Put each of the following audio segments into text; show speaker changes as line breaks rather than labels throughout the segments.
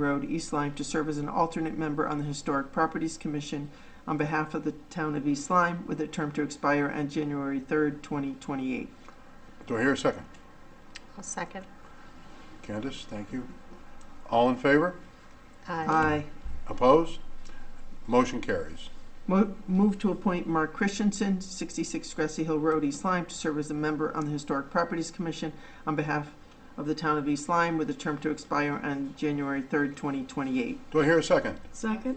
Road, East Lyme, to serve as an alternate member on the Historic Properties Commission on behalf of the town of East Lyme, with a term to expire on January 3rd, 2028.
Do I hear a second?
I'll second.
Candace, thank you. All in favor?
Aye.
Opposed? Motion carries.
Mo- Move to appoint Mark Christensen, 66 Grassy Hill Road, East Lyme, to serve as a member on the Historic Properties Commission on behalf of the town of East Lyme, with a term to expire on January 3rd, 2028.
Do I hear a second?
Second.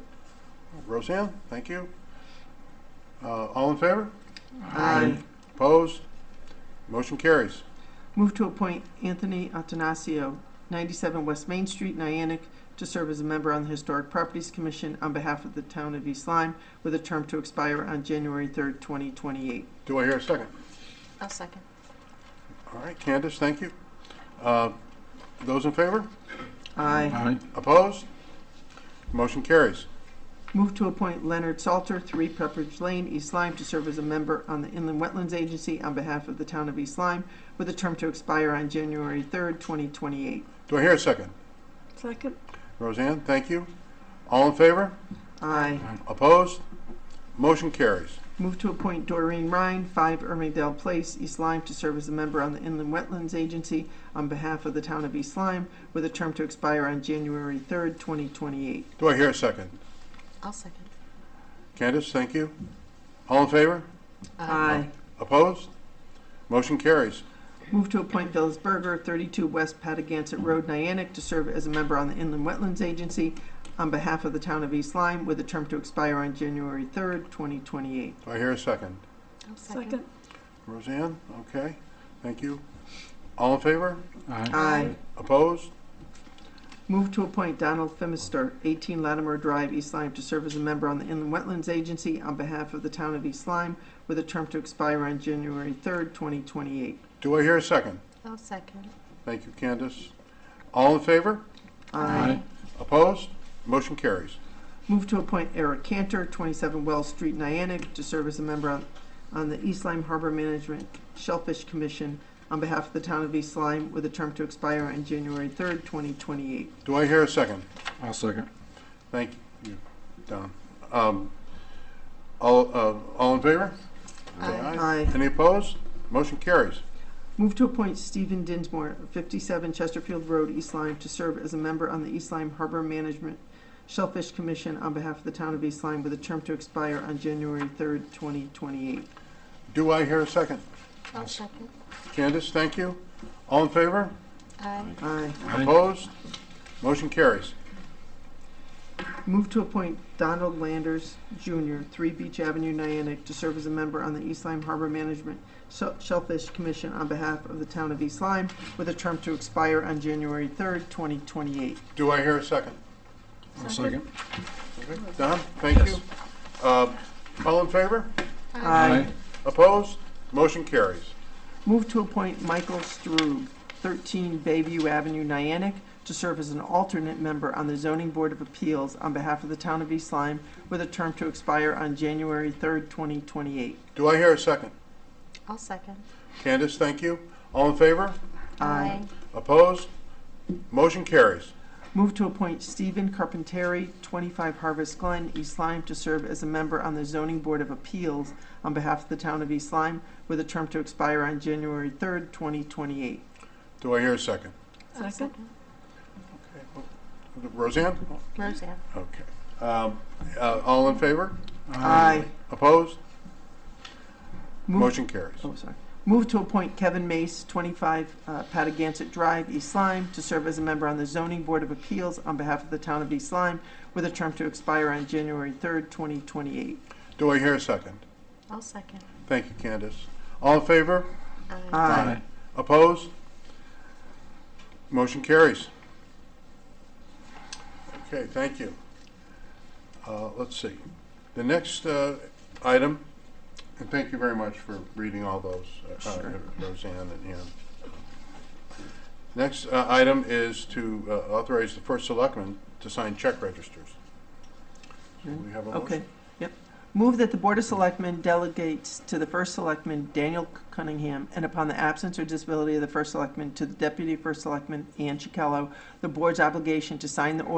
Roseanne, thank you. Uh, all in favor?
Aye.
Opposed? Motion carries.
Move to appoint Anthony Atanasio, 97 West Main Street, Niantic, to serve as a member on the Historic Properties Commission on behalf of the town of East Lyme, with a term to expire on January 3rd, 2028.
Do I hear a second?
I'll second.
All right, Candace, thank you. Uh, those in favor?
Aye.
Opposed? Motion carries.
Move to appoint Leonard Salter, 3 Pepperidge Lane, East Lyme, to serve as a member on the Inland Wetlands Agency on behalf of the town of East Lyme, with a term to expire on January 3rd, 2028.
Do I hear a second?
Second.
Roseanne, thank you. All in favor?
Aye.
Opposed? Motion carries.
Move to appoint Doreen Ryan, 5 Irmingdale Place, East Lyme, to serve as a member on the Inland Wetlands Agency on behalf of the town of East Lyme, with a term to expire on January 3rd, 2028.
Do I hear a second?
I'll second.
Candace, thank you. All in favor? Opposed? Motion carries.
Move to appoint Phyllis Berger, 32 West Patagonic Road, Niantic, to serve as a member on the Inland Wetlands Agency on behalf of the town of East Lyme, with a term to expire on January 3rd, 2028.
Do I hear a second?
I'll second.
Roseanne, okay, thank you. All in favor?
Aye.
Opposed?
Move to appoint Donald Femister, 18 Latimer Drive, East Lyme, to serve as a member on the Inland Wetlands Agency on behalf of the town of East Lyme, with a term to expire on January 3rd, 2028.
Do I hear a second?
I'll second.
Thank you, Candace. All in favor?
Aye.
Opposed? Motion carries.
Move to appoint Eric Cantor, 27 Wells Street, Niantic, to serve as a member on, on the East Lyme Harbor Management Shellfish Commission on behalf of the town of East Lyme, with a term to expire on January 3rd, 2028.
Do I hear a second?
I'll second.
Thank you, Don. Um, All, uh, all in favor?
Aye.
Aye.
Any opposed? Motion carries.
Move to appoint Stephen Dinsmore, 57 Chesterfield Road, East Lyme, to serve as a member on the East Lyme Harbor Management Shellfish Commission on behalf of the town of East Lyme, with a term to expire on January 3rd, 2028.
Do I hear a second?
I'll second.
Candace, thank you. All in favor?
Aye.
Aye.
Opposed? Motion carries.
Move to appoint Donald Landers Jr., 3 Beach Avenue, Niantic, to serve as a member on the East Lyme Harbor Management Shell- Shellfish Commission on behalf of the town of East Lyme, with a term to expire on January 3rd, 2028.
Do I hear a second?
I'll second.
Okay. Don, thank you. Uh, All in favor?
Aye.
Opposed? Motion carries.
Move to appoint Michael Strube, 13 Bayview Avenue, Niantic, to serve as an alternate member on the Zoning Board of Appeals on behalf of the town of East Lyme, with a term to expire on January 3rd, 2028.
Do I hear a second?
I'll second.
Candace, thank you. All in favor?
Aye.
Opposed? Motion carries.
Move to appoint Stephen Carpenteri, 25 Harvest Glen, East Lyme, to serve as a member on the Zoning Board of Appeals on behalf of the town of East Lyme, with a term to expire on January 3rd, 2028.
Do I hear a second?
I'll second.
Roseanne?
Roseanne.
Okay. Um, uh, All in favor?
Aye.
Opposed?
Move
Motion carries.
Oh, sorry. Move to appoint Kevin Mace, 25 uh, Patagonic Drive, East Lyme, to serve as a member on the Zoning Board of Appeals on behalf of the town of East Lyme, with a term to expire on January 3rd, 2028.
Do I hear a second?
I'll second.
Thank you, Candace. All in favor?
Aye.
Aye.
Opposed? Motion carries. Okay, thank you. Uh, Let's see. The next uh, item, and thank you very much for reading all those, uh, uh,
Sure.
Roseanne and Ann. Next uh, item is to uh, authorize the first selectman to sign check registers. Do we have a
Um, Okay,
motion?
yep. Move that the Board of Selectmen delegates to the First Selectman, Daniel Cunningham, and upon the absence or disability of the First Selectman, to the Deputy First Selectman, Ann Chicallo, the Board's obligation to sign the